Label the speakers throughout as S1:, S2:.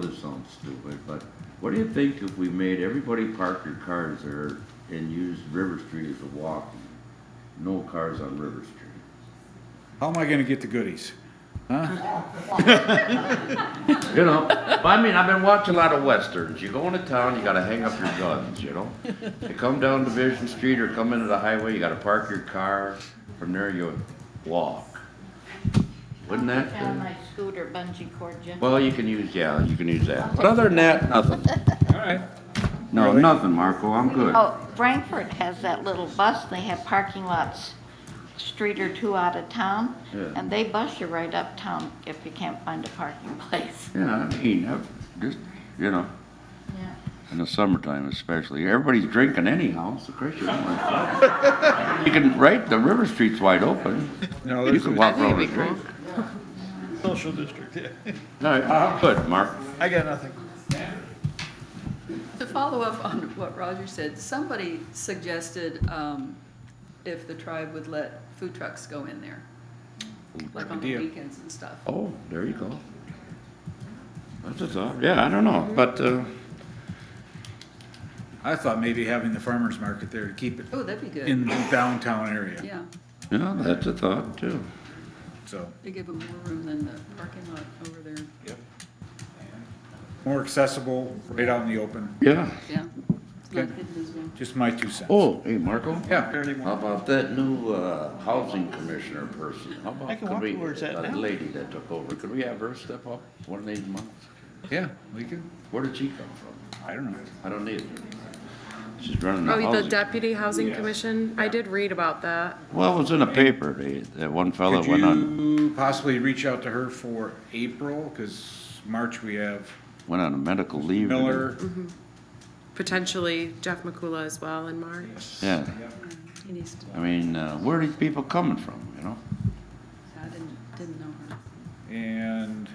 S1: This sounds stupid, but what do you think if we made everybody park their cars there and used River Street as a walk? No cars on River Street.
S2: How am I gonna get the goodies?
S1: You know, but I mean, I've been watching a lot of westerns. You go into town, you gotta hang up your guns, you know? You come down Division Street or come into the highway, you gotta park your car. From there, you walk. Wouldn't that?
S3: Down my scooter bungee cord, Jim.
S1: Well, you can use, yeah, you can use that. But other than that, nothing.
S2: Alright.
S1: No,
S2: Really?
S1: nothing, Marco. I'm good.
S3: Oh, Frankfurt has that little bus, they have parking lots, street or two out of town,
S1: Yeah.
S3: and they bus you right uptown if you can't find a parking place.
S1: Yeah, I mean, I've just, you know,
S3: Yeah.
S1: in the summertime especially, everybody's drinking anyhow, so Chris, you don't like- You can, right, the River Street's wide open.
S2: No,
S1: You
S2: there's
S1: can
S2: a-
S1: walk around the street.
S4: Social district, yeah.
S1: No, I'm good, Mark.
S4: I got nothing.
S5: To follow up on what Roger said, somebody suggested um, if the tribe would let food trucks go in there, like on the
S2: idea.
S5: weekends and stuff.
S1: Oh, there you go. That's a thought, yeah, I don't know, but, uh,
S2: I thought maybe having the farmer's market there to keep it
S5: Oh, that'd be good.
S2: in the downtown area,
S5: Yeah,
S1: yeah, that's a thought too.
S2: so.
S5: they give them more room than the parking lot over there.
S2: More accessible, right out in the open,
S1: Yeah.
S5: Yeah, it's not
S2: Good.
S5: hidden as well.
S2: just my two cents.
S1: Oh, hey, Marco?
S2: Yeah,
S1: How about that new, uh, housing commissioner person? How
S4: I
S1: about,
S4: can
S1: could
S4: walk
S1: we,
S4: towards that
S1: that
S4: now.
S1: lady that took over, could we have her step up one of these months?
S2: yeah, we could,
S1: Where did she come from?
S2: I don't know.
S1: I don't need her. She's running the
S6: Oh, the
S1: housing.
S6: deputy housing commission? I did read about that.
S1: Well, it was in a paper, they- that one fella
S2: Could
S1: went on,
S2: you possibly reach out to her for April, cause March we have
S1: went on a medical leave. and-
S2: Miller,
S6: Potentially Jeff McCula as well in March.
S1: Yeah,
S5: He needs to,
S1: I mean, uh, where are these people coming from, you know?
S5: I didn't, didn't know her.
S2: And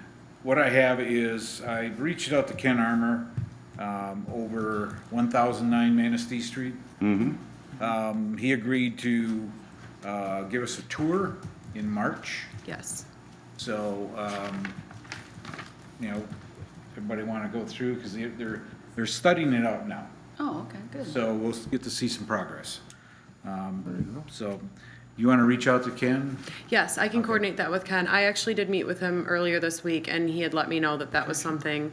S2: what I have is, I reached out to Ken Armour, um, over one thousand nine Manistee Street. Mm-hmm. Um, he agreed to, uh, give us a tour in March,
S6: Yes.
S2: so, um, you know, everybody wanna go through, cause they- they're, they're studying it out now.
S5: Oh, okay, good.
S2: So we'll get to see some progress. Um, so, you wanna reach out to Ken?
S6: Yes, I can coordinate that with Ken. I actually did meet with him earlier this week and he had let me know that that was something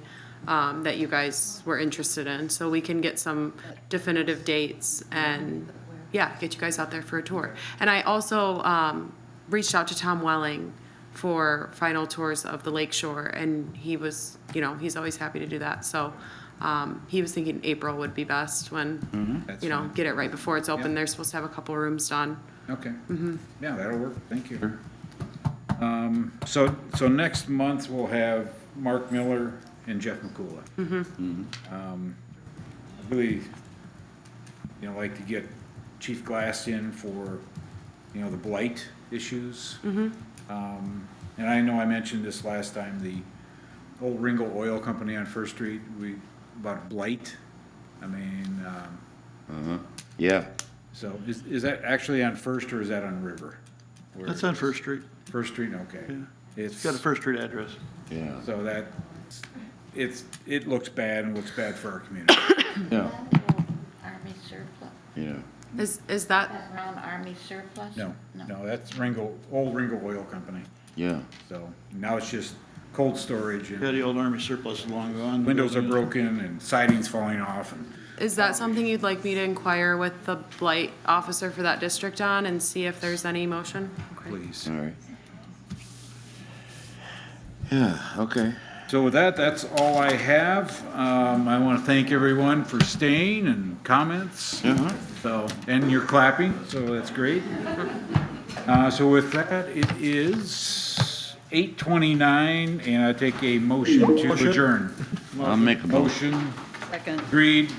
S6: um, that you guys were interested in. So we can get some definitive dates and, yeah, get you guys out there for a tour. And I also um, reached out to Tom Welling for final tours of the lake shore and he was, you know, he's always happy to do that. So um, he was thinking April would be best when,
S2: That's
S6: you know,
S2: fine.
S6: get it right before it's
S2: Yeah.
S6: open. They're supposed to have a couple rooms done.
S2: Okay. Yeah, that'll work, thank you. Um, so, so next month we'll have Mark Miller and Jeff McCula. Um, I really, you know, like to get Chief Glass in for, you know, the blight issues. Um, and I know I mentioned this last time, the old Ringo Oil Company on First Street, we, about blight. I mean, um,
S1: Yeah.
S2: so is, is that actually on First or is that on River? Where-
S4: That's on First Street.
S2: First Street, okay. It's,
S4: It's got a First Street address.
S1: Yeah.
S2: so that, it's, it looks bad and looks bad for our community.
S1: Yeah,
S3: Army surplus,
S1: yeah.
S6: Is, is that,
S3: around army surplus?
S2: No, no, that's Ringo, old Ringo Oil Company.
S1: Yeah.
S2: So now it's just cold storage
S4: Yeah,
S2: and
S4: the old army surplus is long gone.
S2: windows are broken and siding's falling off and,
S6: is that something you'd like me to inquire with the blight officer for that district on and see if there's any motion? Okay.
S2: please.
S1: All right. Yeah, okay.
S2: So with that, that's all I have. Um, I want to thank everyone for staying and comments.
S1: Uh-huh.
S2: So, and you're clapping, so that's great. Uh, so with that, it is eight twenty-nine, and I take a motion to adjourn.
S4: oh,
S1: I'll make a motion.
S2: Motion
S5: Second.
S2: agreed,